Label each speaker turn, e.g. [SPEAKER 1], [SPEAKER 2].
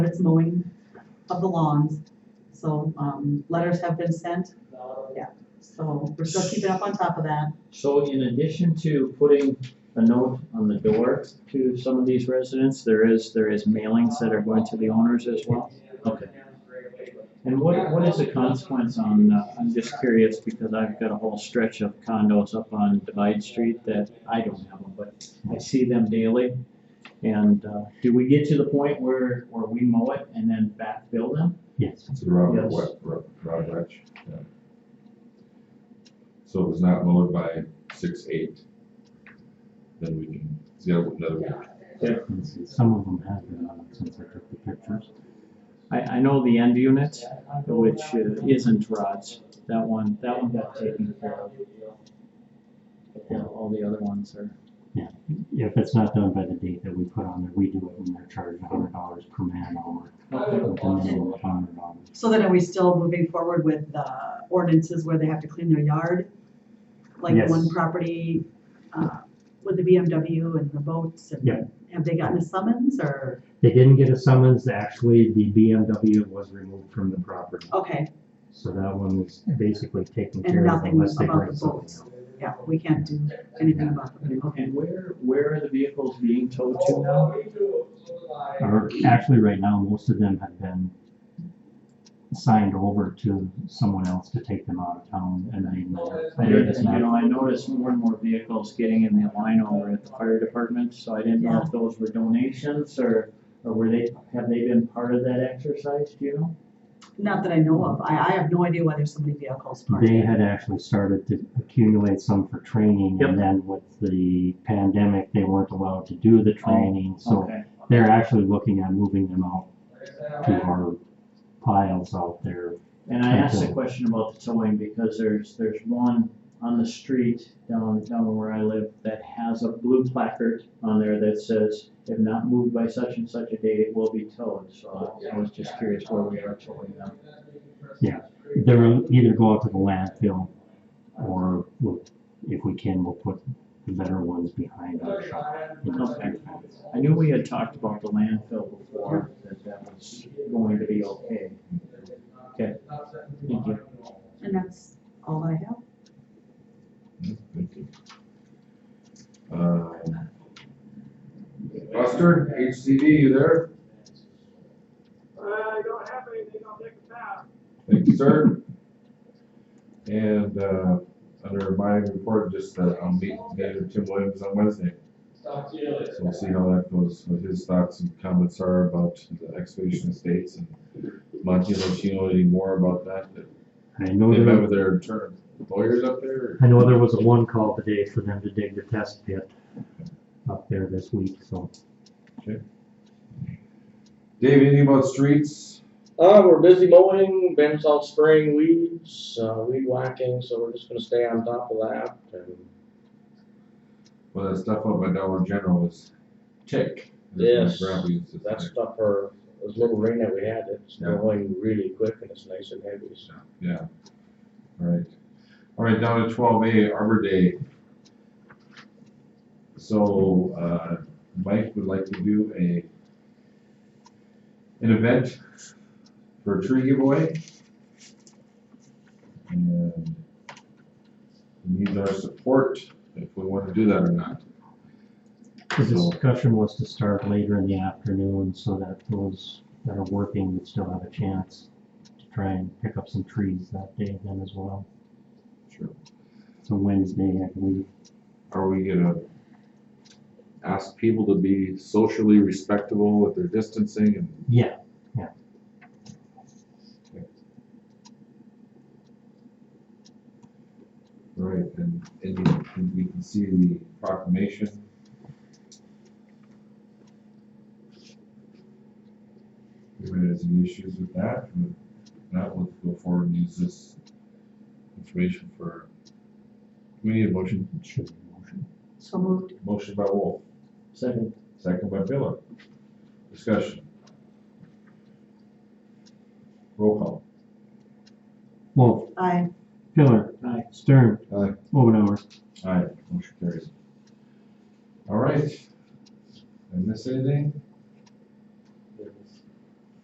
[SPEAKER 1] it's mowing of the lawns. So, um, letters have been sent, so we're still keeping up on top of that.
[SPEAKER 2] So in addition to putting a note on the door to some of these residents, there is, there is mailings that are going to the owners as well? Okay. And what, what is the consequence on, uh, I'm just curious because I've got a whole stretch of condos up on Divide Street that I don't have them, but I see them daily. And, uh, do we get to the point where, where we mow it and then backfill them?
[SPEAKER 3] Yes.
[SPEAKER 4] It's a round,
[SPEAKER 2] Yes.
[SPEAKER 4] wet, round, round wedge, yeah. So if it's not mowed by six, eight, then we can, it's got another week.
[SPEAKER 3] And s- Some of them have been on since I took the pictures.
[SPEAKER 2] I, I know the end unit, which uh, isn't Rod's, that one, that one got taken care of. Yeah, all the other ones are.
[SPEAKER 3] If it's not done by the date that we put on there, we do it and they're charged a hundred dollars per man hour. With a minimum of hundred dollars.
[SPEAKER 1] So then are we still moving forward with the ordinances where they have to clean their yard? Like
[SPEAKER 3] Yes.
[SPEAKER 1] one property, uh, with the BMW and the boats and.
[SPEAKER 3] Yeah.
[SPEAKER 1] Have they gotten a summons or,
[SPEAKER 3] They didn't get a summons. Actually, the BMW was removed from the property.
[SPEAKER 1] okay,
[SPEAKER 3] So that one was basically taken
[SPEAKER 1] and
[SPEAKER 3] care of
[SPEAKER 1] nothing
[SPEAKER 3] unless they
[SPEAKER 1] about
[SPEAKER 3] bring
[SPEAKER 1] the
[SPEAKER 3] something.
[SPEAKER 1] boats? Yeah, we can't do anything about them,
[SPEAKER 2] And-
[SPEAKER 1] okay.
[SPEAKER 2] And where, where are the vehicles being towed to now?
[SPEAKER 3] Or actually, right now, most of them have been signed over to someone else to take them out of town and then they're-
[SPEAKER 2] I
[SPEAKER 3] they're.
[SPEAKER 2] didn't-
[SPEAKER 3] just
[SPEAKER 2] You
[SPEAKER 3] not-
[SPEAKER 2] know, I noticed more and more vehicles getting in the line over at the fire department, so I didn't know if those were donations or, or were they, have they been part of that exercise, do you know?
[SPEAKER 1] Not that I know of, I, I have no idea why there's so many vehicles parked.
[SPEAKER 3] They had actually started to accumulate some for training and then with the pandemic, they weren't allowed to do the training, so
[SPEAKER 2] Okay,
[SPEAKER 3] they're actually looking at moving them out to our piles out there.
[SPEAKER 2] and I asked a question about the towing because there's, there's one on the street down, down where I live that has a blue placard on there that says, if not moved by such and such a date, it will be towed, so I was just curious where we are towing them.
[SPEAKER 3] Yeah, They'll either go out to the landfill or we'll, if we can, we'll put the better ones behind our shop. in the back fence.
[SPEAKER 2] I knew we had talked about the landfill before, that that was going to be okay. Okay, thank you.
[SPEAKER 1] And that's all I have.
[SPEAKER 4] Yeah, Hmm, Thank you. Um, Buster, HCD, you there?
[SPEAKER 5] I Uh, don't have anything, I'll take a pass.
[SPEAKER 4] Thank you, sir. And, uh, under my report, just that I'll meet Mayor Tim Williams on Wednesday. So we'll see how that goes, what his thoughts and comments are about the excavation estates and Monty, if you know any more about that,
[SPEAKER 3] I know
[SPEAKER 4] they
[SPEAKER 3] there,
[SPEAKER 4] met with their attorney- lawyers up there? or-
[SPEAKER 3] I know there was a one call today for them to dig the test pit up there this week, so.
[SPEAKER 4] Dave, anything about streets?
[SPEAKER 6] Uh, we're busy mowing, been out spraying weeds, uh, weed whacking, so we're just gonna stay on top of that and.
[SPEAKER 4] Well, that stuff up by Dollar General is tick.
[SPEAKER 6] Yes.
[SPEAKER 4] Grabbing, it's
[SPEAKER 6] That
[SPEAKER 4] like-
[SPEAKER 6] stuff for, this little rain that we had, it's going really quick and it's nice and heavy, so.
[SPEAKER 4] Yeah, all right. All right, down to twelve A, Arbor Day. So, uh, Mike would like to do a, an event for a tree giveaway. And he needs our support if we want to do that or not.
[SPEAKER 3] The
[SPEAKER 4] So-
[SPEAKER 3] discussion was to start later in the afternoon so that those that are working would still have a chance to try and pick up some trees that day then as well.
[SPEAKER 4] Sure.
[SPEAKER 3] So Wednesday, I believe.
[SPEAKER 4] Are we gonna ask people to be socially respectable with their distancing and
[SPEAKER 3] Yeah,
[SPEAKER 4] Right, and, and you- and we can see the proclamation. Anybody has any issues with that? If Not, let's go forward and use this information for, do we need a motion,
[SPEAKER 3] it should be a motion.
[SPEAKER 1] So moved.
[SPEAKER 4] motion by Wolf,
[SPEAKER 2] Second,
[SPEAKER 4] second by Miller. Discussion. Roll call.
[SPEAKER 3] Wolf,
[SPEAKER 1] Aye.
[SPEAKER 3] Pillar,
[SPEAKER 2] Aye.
[SPEAKER 3] Stern,
[SPEAKER 4] Aye.
[SPEAKER 3] Omenauer,